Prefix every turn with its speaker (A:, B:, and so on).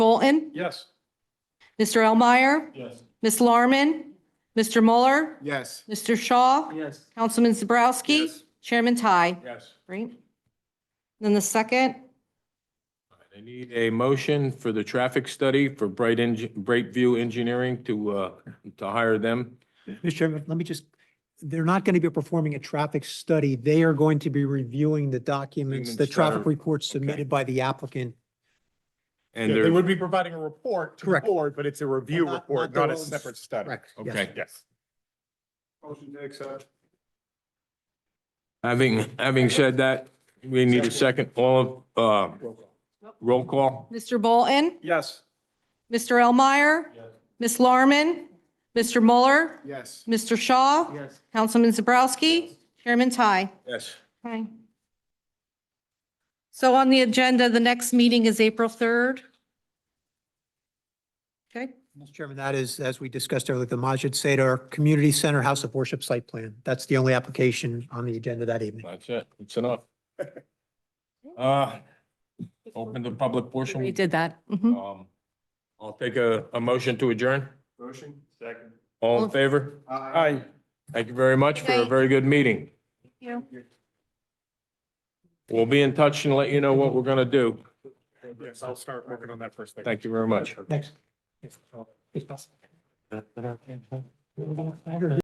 A: Bolton?
B: Yes.
A: Mr. Elmeyer?
B: Yes.
A: Ms. Larman? Mr. Mueller?
B: Yes.
A: Mr. Shaw?
B: Yes.
A: Councilman Zabrowski?
B: Yes.
A: Chairman Ty?
B: Yes.
A: Right? Then the second,
B: I need a motion for the traffic study for Bright Eng, Bright View Engineering to, uh, to hire them.
C: Mr. Chairman, let me just, they're not going to be performing a traffic study. They are going to be reviewing the
B: Documents
C: documents, the
B: that
C: traffic
B: are-
C: reports submitted by the applicant.
B: And
D: Yeah, They
B: they're,
D: would be providing a report to the
C: Correct.
D: board, but it's a review
C: not- not
D: report, not
C: their
D: a
C: own-
D: separate study.
C: yes.
B: okay.
D: Yes.
E: Motion to accept.
B: Having, having said that, we need a second, all of, uh, roll call?
A: Mr. Bolton?
E: Yes.
A: Mr. Elmeyer?
E: Yes.
A: Ms. Larman? Mr. Mueller?
E: Yes.
A: Mr. Shaw?
E: Yes.
A: Councilman Zabrowski? Chairman Ty?
B: Yes.
A: Okay. So on the agenda, the next meeting is April 3rd. Okay,
C: Mr. Chairman, that is, as we discussed earlier, the Majid Sadar Community Center House of Worship Site Plan. That's the only application on the agenda that evening.
B: That's it, it's enough. Uh, open the public portion.
A: we did that. Mhm.
B: Um, I'll take a, a motion to adjourn.
E: Motion. Second.
B: All in favor?
E: Aye.
B: Thank you very much for a
A: Okay.
B: very good meeting.
A: you.
B: We'll be in touch and let you know what we're gonna do.
D: Yes, I'll start working on that first thing.
B: Thank you very much.
C: Next.